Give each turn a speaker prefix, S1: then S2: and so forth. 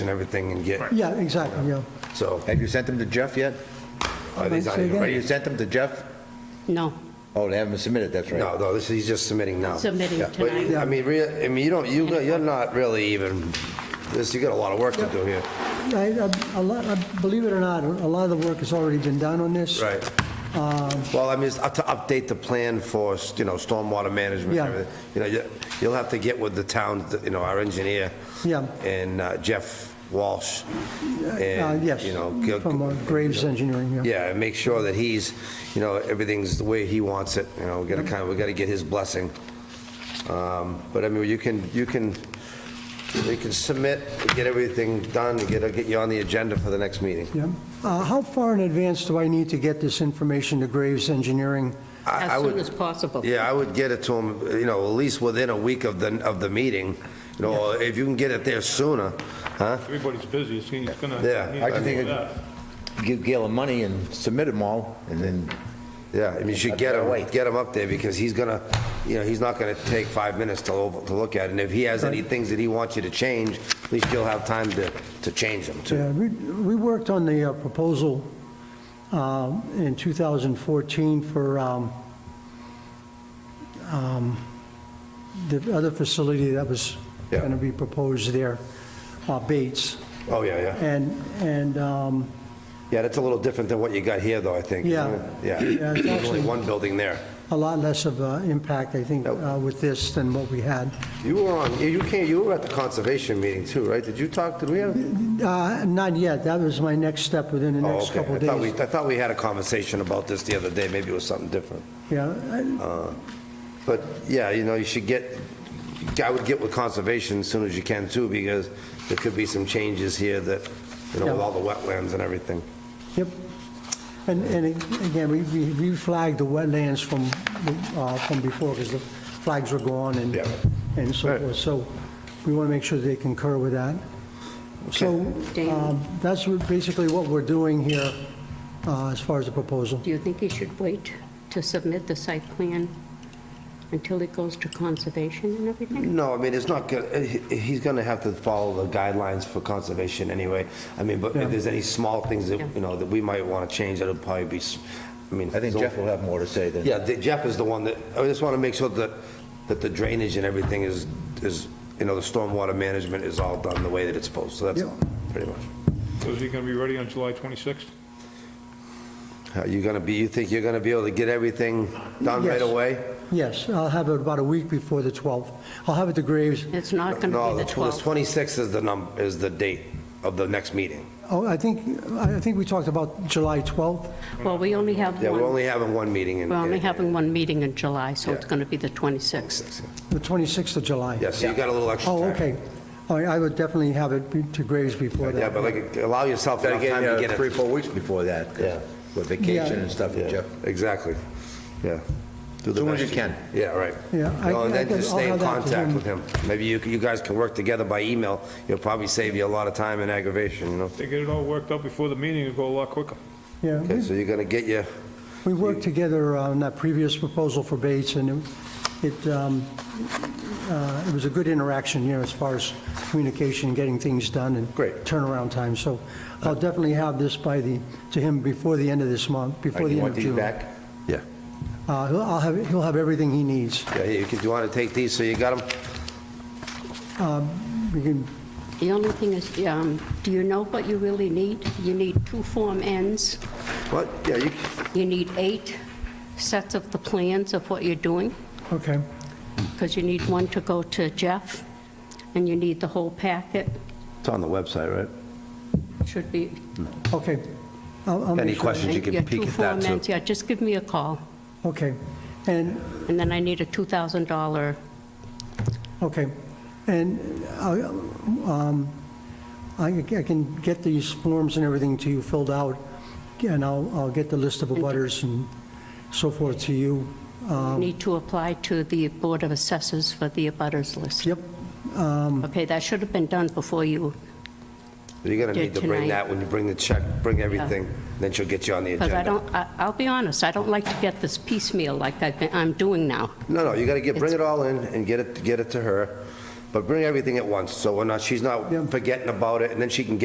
S1: and everything and get,
S2: Yeah, exactly, yeah.
S1: so,
S3: Have you sent them to Jeff yet?
S2: Oh,
S1: are these not even
S3: Have you
S1: ready?
S3: sent them to Jeff?
S4: No,
S3: Oh, they haven't submitted, that's right.
S1: No, no, this, he's just submitting now.
S4: submitting
S1: But,
S4: tonight.
S1: I mean, rea- I mean, you don't, you, you're not really even, this, you got a lot of work to do here.
S2: I- I- a lot- I- Believe it or not, a lot of the work has already been done on this.
S1: Right.
S2: Um,
S1: Well, I mean, it's up to update the plan for, you know, stormwater management and
S2: Yeah.
S1: everything. You know, you- you'll have to get with the town, you know, our engineer.
S2: Yeah.
S1: And uh, Jeff Walsh.
S2: Uh,
S1: And,
S2: Yes,
S1: you know, go-
S2: from uh, Graves Engineering, yeah.
S1: Yeah, and make sure that he's, you know, everything's the way he wants it, you know, we gotta kind of, we gotta get his blessing. Um, But I mean, you can, you can, you can submit, get everything done, get, get you on the agenda for the next meeting.
S2: Yeah. Uh, How far in advance do I need to get this information to Graves Engineering?
S1: I- I
S4: As soon
S1: would-
S4: as possible.
S1: Yeah, I would get it to him, you know, at least within a week of the, of the meeting, you know, or if you can get it there sooner, huh?
S5: Everybody's busy, it's gonna- it's gonna.
S1: Yeah, I
S5: need to
S3: think
S5: do
S3: it-
S5: that.
S3: Give Gail the money and submit them all, and then,
S1: Yeah, I mean, you should get him, get him up there, because he's gonna, you know, he's not gonna take five minutes to, over- to look at it, and if he has any things that he wants you to change, at least you'll have time to, to change them, too.
S2: Yeah, we we worked on the uh, proposal um, in 2014 for um, um, the other facility that was
S1: Yeah.
S2: going to be proposed there, uh, Bates.
S1: Oh, yeah, yeah.
S2: And, and um,
S1: Yeah, that's a little different than what you got here, though, I think. isn't
S2: Yeah.
S1: it? Yeah.
S2: Yeah, it's
S1: There's only
S2: actually-
S1: one building there.
S2: a lot less of an impact, I think,
S1: Nope.
S2: uh, with this than what we had.
S1: You were on, you came, you were at the conservation meeting, too, right? Did you talk, did we have?
S2: Uh, Not yet, that was my next step within the
S1: Oh,
S2: next
S1: okay.
S2: couple
S1: I
S2: of
S1: thought we,
S2: days.
S1: I thought we had a conversation about this the other day, maybe it was something different.
S2: Yeah, I-
S1: But, yeah, you know, you should get, I would get with conservation as soon as you can too, because there could be some changes here that, you know, with
S2: Yeah.
S1: all the wetlands and everything.
S2: yep. And, and again, we, we we flagged the wetlands from, uh, from before, because the flags were gone and,
S1: Yeah.
S2: and so
S1: Right.
S2: forth. So we want to make sure they concur with that. So
S4: Dan.
S2: um, that's what- basically what we're doing here uh, as far as the proposal.
S4: Do you think he should wait to submit the site plan until it goes to conservation and everything?
S1: No, I mean, it's not good, eh, he- he's gonna have to follow the guidelines for conservation anyway. I mean, but if there's any small things that, you know, that we might wanna change, that'll probably be, s- I mean.
S3: I think Jeff will have more to say then.
S1: Yeah, the- Jeff is the one that, I just want to make sure that, that the drainage and everything is, is, you know, the stormwater management is all done the way that it's supposed, so that's all, pretty much.
S5: So is he gonna be ready on July 26th?
S1: Are you going to be, you think you're going to be able to get everything done right
S2: Yes.
S1: away?
S2: Yes, I'll have it about a week before the 12th. I'll have it to Graves.
S4: It's not
S1: Mm.
S4: going
S1: No,
S4: to
S1: the
S4: be the 12th.
S1: 26th is the num, is the date of the next meeting.
S2: Oh, I think, I I think we talked about July 12th.
S4: Well, we only have
S1: Yeah, we're
S4: one,
S1: only having one meeting in.
S4: we're only
S1: in-
S4: having one meeting in July, so it's
S1: Yeah.
S4: going to be the 26th.
S2: The 26th of July?
S1: Yeah, so you got a little extra time.
S2: Oh, okay. All right, I would definitely have it be- to Graves before that.
S1: Yeah, but like, allow yourself
S3: Gotta
S1: enough
S3: get,
S1: time to
S3: you
S1: get
S3: know, three,
S1: it.
S3: four weeks before that, 'cause
S1: Yeah.
S3: with vacation and stuff,
S1: Yeah,
S3: Jeff.
S1: Exactly, yeah. Do the
S3: Soon as
S1: best
S3: you can.
S1: Yeah, right.
S2: Yeah, I-
S1: No, And
S2: I
S1: then
S2: can-
S1: just
S2: I'll
S1: stay in
S2: have that to
S1: contact
S2: him.
S1: with him. Maybe you, you guys can work together by email. It'll probably save you a lot of time and aggravation, you know?
S5: They get it all worked out before the meeting, it'll go a lot quicker.
S2: Yeah,
S1: Okay, so you're gonna get your,
S2: we worked together on that previous proposal for Bates, and it, it, um, uh, it was a good interaction, you know, as far as communication, getting things done, and
S1: Great.
S2: turnaround time, so I'll definitely have this by the, to him before the end of this month,
S3: All right,
S2: before
S3: you
S2: the end
S3: want
S2: of
S3: these
S2: June.
S3: back?
S1: yeah,
S2: Uh, he'll- I'll have, he'll have everything he needs.
S1: yeah, here, you can, do you wanna take these, so you got them?
S2: We can,
S4: The only thing is, um, do you know what you really need? You need two Form Ns,
S1: What, yeah, you,
S4: you need eight sets of the plans of what you're doing,
S2: okay,
S4: because you need one to go to Jeff, and you need the whole packet,
S1: it's on the website, right?
S4: should be
S2: okay. I'll- I'll make
S1: Any
S2: sure-
S1: questions, you
S4: Thank
S1: can peek
S4: Two
S1: at that,
S4: formats,
S1: too.
S4: yeah, just give me a call,
S2: Okay, and
S4: and then I need a $2,000,
S2: Okay, and I, um, I I can get these forms and everything to you filled out, and I'll, I'll get the list of abutters and so forth to you. um,
S1: Um.
S4: need to apply to the Board of Assessors for the abutters list.
S2: Yep,
S1: um.
S4: Okay, that should have been done before you,
S1: You're gonna
S4: Yeah,
S1: need to bring
S4: tonight.
S1: that when you bring the check, bring everything, then she'll get you on the
S4: because I
S1: agenda.
S4: don't, I- I'll be honest, I don't like to get this piecemeal like I've been- I'm doing now.
S1: No, no, you gotta get, bring it
S4: It's-
S1: all in and get it, get it to her, But bring everything at once, so we're not, she's not
S2: Yeah.
S1: forgetting about it, and then she can get